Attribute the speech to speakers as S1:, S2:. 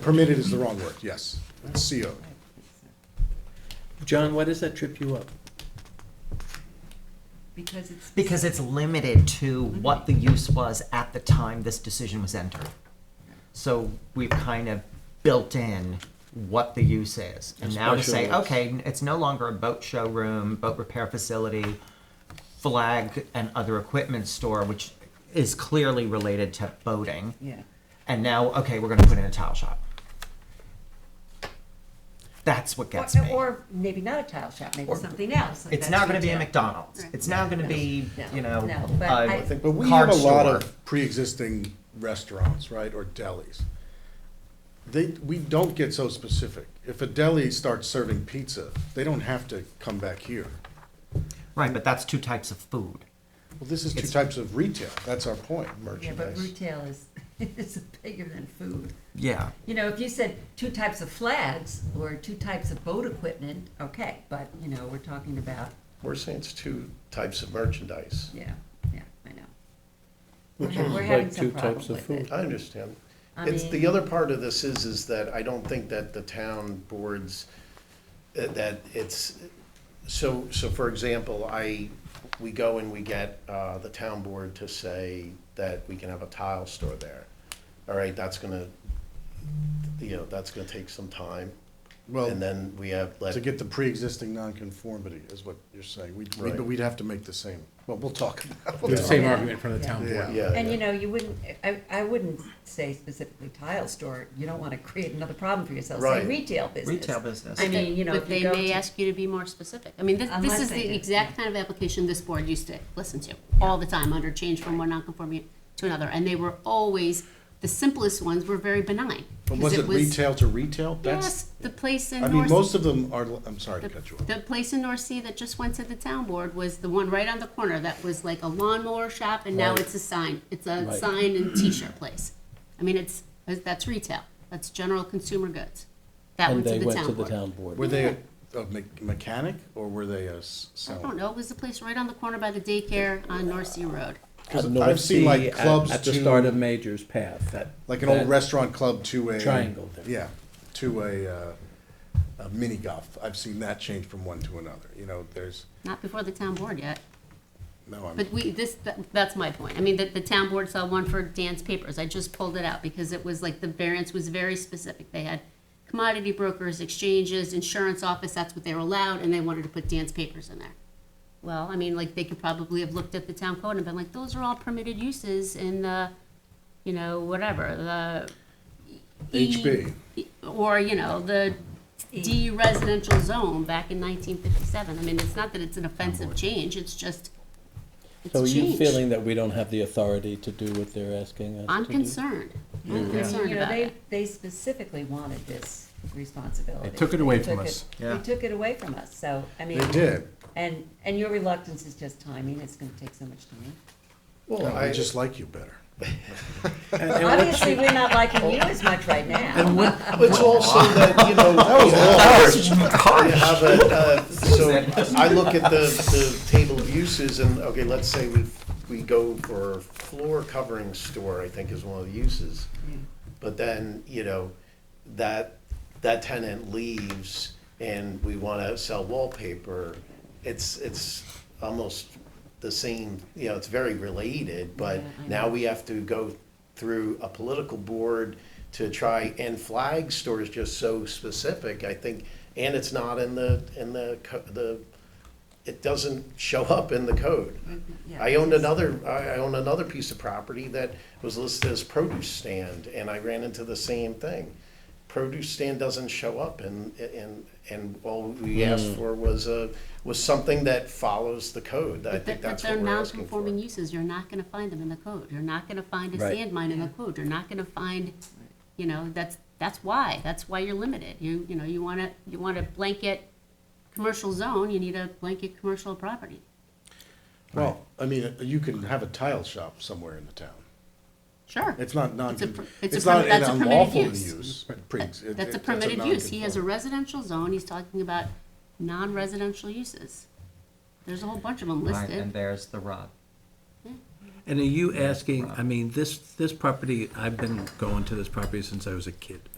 S1: Permitted is the wrong word, yes. It's CO'd.
S2: John, why does that trip you up?
S3: Because it's.
S4: Because it's limited to what the use was at the time this decision was entered. So we've kind of built in what the use is. And now to say,
S2: Special use.
S4: okay, it's no longer a boat showroom, boat repair facility, flag and other equipment store, which is clearly related to boating.
S3: Yeah.
S4: And now, okay, we're gonna put in a tile shop. That's what
S3: Or,
S4: gets me.
S3: or maybe not a tile shop, maybe
S4: Or-
S3: something else. like
S4: It's
S3: that's
S4: not gonna be a
S3: retail.
S4: McDonald's.
S3: Right.
S4: It's now gonna be,
S3: No,
S4: you know,
S3: no, but
S4: a
S3: I-
S1: But we
S4: card
S1: have a lot
S4: store.
S1: of pre-existing restaurants, right, or delis. They, we don't get so specific. If a deli starts serving pizza, they don't have to come back here.
S4: Right, but that's two types of food.
S1: Well, this is two
S4: It's-
S1: types of retail, that's our point,
S3: Yeah, but
S1: merchandise.
S3: retail is, is bigger than food.
S4: Yeah.
S3: You know, if you said two types of flags or two types of boat equipment, okay, but, you know, we're talking about,
S5: We're saying it's two types of merchandise.
S3: yeah, yeah, I know. We're ha- we're having
S2: like
S3: some
S2: two types
S3: problem
S2: of
S3: with it.
S5: I understand.
S3: I
S5: It's, the
S3: mean-
S5: other part of this is, is that I don't think that the town boards, uh, that it's, so, so for example, I, we go and we get, uh, the town board to say that we can have a tile store there. All right, that's gonna, you know, that's gonna take some time.
S1: Well,
S5: And then we have, let-
S1: To get the pre-existing nonconformity is what you're saying. We'd, we'd-
S5: Right.
S1: we'd have to make the same, well, we'll talk about
S2: The same
S3: Yeah.
S2: argument in front of the town
S5: yeah,
S2: board.
S5: yeah.
S3: And you know, you wouldn't, I, I wouldn't say specifically tile store, you don't wanna create another problem for yourself, say
S5: Right.
S3: retail business.
S4: Retail business.
S3: I mean, you know,
S6: But
S3: if
S6: they
S3: you go
S6: may
S3: to,
S6: ask you to be more specific. I mean, this, this
S3: Unless
S6: is
S3: they do,
S6: the exact kind of application this board used to listen to all the time, under change from one nonconforming to another. And they were always, the simplest ones were very benign.
S1: But
S6: 'cause
S1: was it retail to retail? That's-
S6: Yes, the place in
S1: I mean, most
S6: North,
S1: of them are, I'm sorry to cut you off.
S6: the place in North Sea that just went to the town board was the one right on the corner that was like a lawnmower shop and now
S2: Right.
S6: it's a sign. It's a
S2: Right.
S6: sign and t-shirt place. I mean, it's, that's retail. That's general consumer goods. That
S2: And
S6: went to
S2: they
S6: the
S2: went to
S6: town
S2: the
S6: board.
S2: town board.
S1: Were they a a me- mechanic or were they a s-
S6: I
S1: seller?
S6: don't know, it was the place right on the corner by the daycare on North Sea Road.
S1: Because
S2: On North
S1: I've seen
S2: Sea
S1: like
S2: at-
S1: clubs
S2: At the start of
S1: to,
S2: Major's Path, that.
S1: like an old
S2: that-
S1: restaurant club to a.
S2: Triangle there.
S1: Yeah, to a, uh, a mini golf. I've seen that change from one to another, you know, there's,
S6: Not before the town board yet,
S1: no, I'm,
S6: but we, this, that- that's my point. I mean, the, the town board saw one for Dan's Papers, I just pulled it out because it was like, the variance was very specific. They had commodity brokers, exchanges, insurance office, that's what they were allowed, and they wanted to put Dan's Papers in there. Well, I mean, like, they could probably have looked at the town code and been like, those are all permitted uses in the, you know, whatever, the. E-
S1: HB.
S6: Or, you know, the D residential zone back in nineteen fifty-seven. I mean, it's not that it's an offensive change, it's just, it's
S2: So are
S6: a
S2: you
S6: change.
S2: feeling Mm-hmm. that we don't have the authority to do what they're asking us to do?
S6: I'm concerned. I'm concerned
S3: you know,
S6: about
S3: they,
S6: it.
S3: they specifically wanted this responsibility.
S7: They took it away
S3: They
S7: from
S3: took
S7: us.
S3: it- They took it away from us, so, I mean.
S1: they did.
S3: And, and your reluctance is just timing, it's gonna take so much time.
S5: Well,
S1: I
S5: I,
S1: just like you better.
S3: Obviously, we're not liking you as much right now.
S5: it's also that, you know. You have a, uh, so I look at the, the table of uses and, okay, let's say we, we go for floor covering store, I think is one of the uses. But then, you know, that, that tenant leaves and we wanna sell wallpaper, it's, it's almost the same, you know, it's very related, but
S3: Yeah, I
S5: now we have to go through a political board to try, and flag store is just so specific, I think, and it's not in the, in the, co- the, it doesn't show up in the code.
S3: Yeah.
S5: I owned another, I I owned another piece of property that was listed as produce stand, and I ran into the same thing. Produce stand doesn't show up, and, and, and all we asked for was a, was something that follows the code, I
S6: But the-
S5: think
S6: but
S5: that's
S6: they're
S5: what we're asking for.
S6: non-conforming uses, you're not gonna find them in the code. You're not gonna find a
S2: Right.
S6: sand mine in the code. You're not gonna find, you know, that's, that's why, that's why you're limited. You, you know, you wanna, you want a blanket commercial zone, you need a blanket commercial property.
S1: Well, I mean, uh, you can have a tile shop somewhere in the town.
S6: Sure.
S1: It's not non,
S6: It's a per- it's a
S1: it's not
S6: permi-
S1: an
S6: that's a permitted
S1: unlawful
S6: use.
S1: use. pre- it- it-
S6: That's a permitted use. He has a
S1: nonconform-
S6: residential zone. He's talking about non-residential uses. There's a whole bunch of them
S4: Right, and
S6: listed.
S4: there's the rub.
S7: And are you asking, I mean, this, this property, I've been going to this property since I was a kid.